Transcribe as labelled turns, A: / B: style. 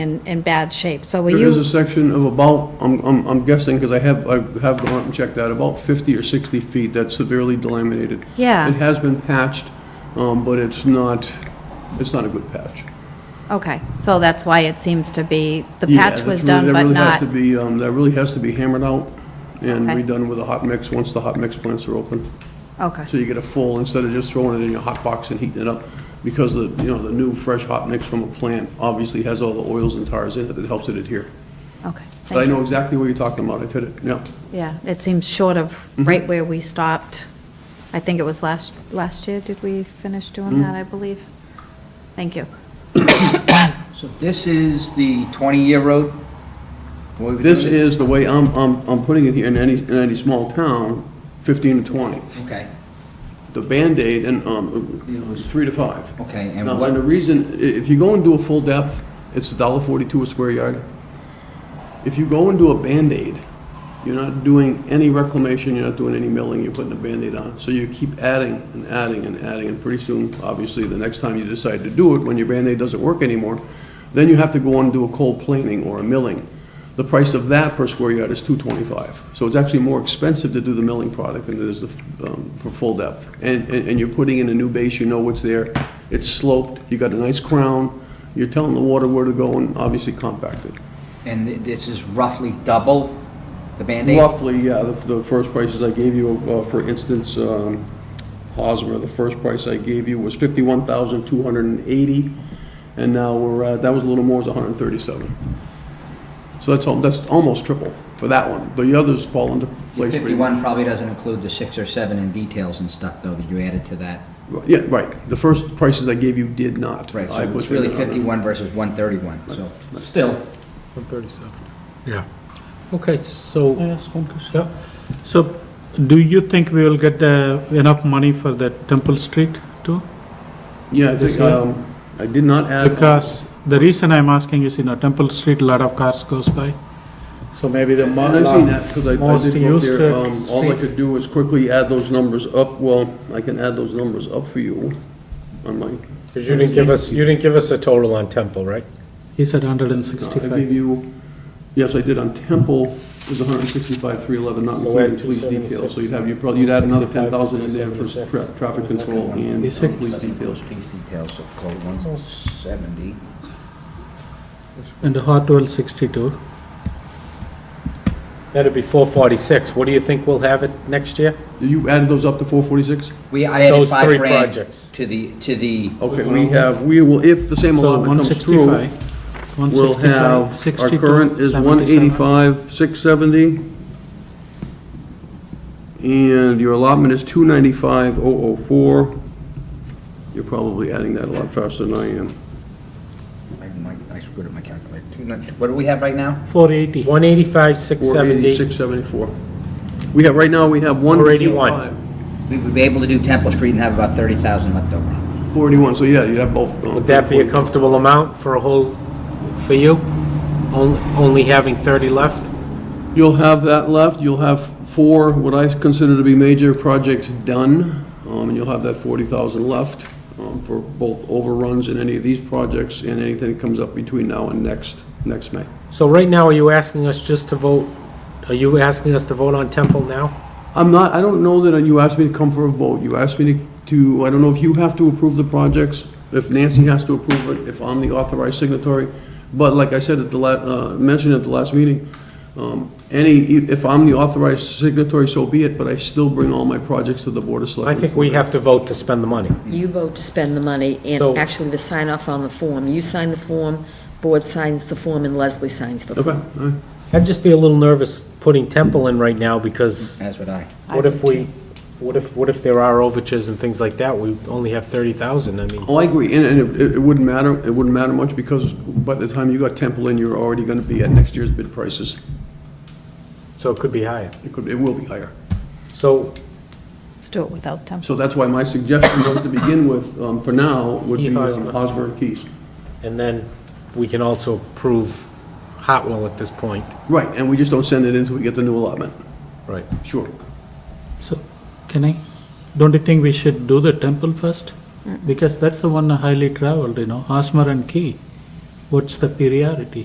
A: in, in bad shape. So will
B: There is a
A: you,
B: section of about, I'm, I'm I'm guessing, because I have, I have gone up and checked that, about 50 or 60 feet that's severely delaminated. It
A: yeah,
B: has been patched, um, but it's not, it's not a good patch.
A: okay. So that's why it seems to be, the
B: Yeah,
A: patch
B: that's
A: was
B: really-
A: done, but
B: That really has
A: not,
B: to be, um, that really has to be hammered out and
A: Okay.
B: redone with a hot mix, once the hot mix plants are open.
A: okay,
B: So you get a full, instead of just throwing it in your hot box and heating it up, because the, you know, the new fresh hot mix from a plant obviously has all the oils and tars in it that helps it adhere.
A: okay.
B: But I
A: Thank you.
B: know exactly what you're talking about, I've hit it, yeah.
A: Yeah, it seems short of
B: Mm-hmm.
A: right where we stopped. I think it was last, last year, did we finish doing
B: Mm-hmm.
A: that, I believe? Thank you.
C: So this is the 20-year road? What we're
B: This
C: doing?
B: is the way I'm, I'm, I'm putting it here in any, in any small town, 15 to 20.
C: Okay,
B: The Band-Aid and, um, three to five.
C: okay, and
B: Now, and the
C: what,
B: reason, i- if you go and do a full depth, it's $1.42 a square yard. If you go and do a Band-Aid, you're not doing any reclamation, you're not doing any milling, you're putting a Band-Aid on. So you keep adding and adding and adding, and pretty soon, obviously, the next time you decide to do it, when your Band-Aid doesn't work anymore, then you have to go on and do a cold planing or a milling. The price of that per square yard is $2.25. So it's actually more expensive to do the milling product than it is the, um, for full depth. And, and and you're putting in a new base, you know what's there, it's sloped, you got a nice crown, you're telling the water where to go, and obviously compacted.
C: and thi- this is roughly double the Band-Aid?
B: Roughly, yeah, the, the first prices I gave you, uh, for instance, um, Hosmer, the first price I gave you was fifty-one thousand two hundred and eighty, and now we're, uh, that was a little more, it was hundred and thirty-seven. So that's all, that's almost triple for that one. The others fall into
C: Your
B: place. pretty much.
C: 51 probably doesn't include the six or seven in details and stuff, though, that you added to that.
B: Yeah, right. The first prices I gave you did not.
C: Right,
B: I
C: so
B: was
C: it's really
B: thinking of-
C: 51 versus 131, so still,
D: 137. Yeah. Okay, so,
E: ask one question?
D: yeah, so do you think we will get the, enough money for the Temple Street too?
B: Yeah, I think,
D: This one?
B: um, I did not
D: Uh,
B: add.
D: Because the reason I'm asking is, you know, Temple Street, a lot of cars goes by, so maybe the mo-
B: And I've seen that, because I
D: most
B: did go up
D: used uh,
B: there, um, all I
D: street.
B: could do is quickly add those numbers up, well, I can add those numbers up for you on my, uh,
E: 'Cause you didn't give us, you didn't give us a total on Temple, right?
D: He said hundred and
B: I
D: sixty-five.
B: gave you, yes, I did on Temple, it was hundred and sixty-five, three eleven, not
E: So
B: including
E: add
B: police
E: 276.
B: details, so you'd have, you probably, you'd add another ten
E: 65 to
B: thousand in there for
E: 276.
B: tra- traffic control and
D: Is it-
B: uh, police details.
C: police details, so code 170.
D: And Hartwell sixty-two.
E: That'd be four forty-six. What do you think we'll have it next year?
B: You added those up to four forty-six?
C: We, I added
E: Those three
C: five grand
E: projects.
C: to the, to the,
B: Okay, we have, we will, if the same
D: So
B: allotment
D: one
B: comes through,
D: sixty-five.
B: we'll have, our current is one eighty-five, six seventy. And your allotment is two ninety-five, oh oh four. You're probably adding that a lot faster than I am.
C: I- my- I screwed up my calculator. Two nine- What do we have right now?
D: Four eighty.
E: One eighty-five, six
B: Four eighty,
E: seventy.
B: six seventy-four. We have, right now, we have one.
E: 481.
C: We would be able to do Temple Street and have about 30,000 left over.
B: Four eighty-one, so yeah, you have both. uh,
E: Would that be a
B: 481.
E: comfortable amount for a whole, for you? Only, only having thirty left?
B: You'll have that left, you'll have four, what I consider to be major projects done, um, and you'll have that 40,000 left um, for both overruns in any of these projects and anything that comes up between now and next, next May.
E: So right now, are you asking us just to vote, are you asking us to vote on Temple now?
B: I'm not, I don't know that you asked me to come for a vote, you asked me to- to, I don't know if you have to approve the projects, if Nancy has to approve it, if I'm the authorized signatory, but like I said at the la, uh, mentioned at the last meeting, um, any, if I'm the authorized signatory, so be it, but I still bring all my projects to the Board of
E: I
B: Selectmen.
E: think we have to vote to spend the money.
F: You vote to spend the money
E: So-
F: and actually to sign off on the form. You sign the form, board signs the form, and Leslie signs the
B: Okay, all
F: form.
B: right.
E: I'd just be a little nervous putting Temple in right now because
C: As would I.
E: What if we, what if, what if there are overtures and things like that? We only have thirty thousand, I mean,
B: Oh, I agree, and, and it, it wouldn't matter, it wouldn't matter much, because by the time you got Temple in, you're already gonna be at next year's bid prices.
E: so it could be higher.
B: It could, it will be higher.
E: So,
A: Let's do it without Temple.
B: So that's why my suggestion was to begin with, um, for now, would be
E: Key
B: um,
E: Hosmer.
B: Hosmer and Keys.
E: and then we can also approve Hotwell at this point.
B: Right, and we just don't send it in until we get the new allotment.
E: Right.
B: Sure.
D: So, can I, don't you think we should do the temple first? Because that's the one highly traveled, you know, Asmar and Key. What's the priority?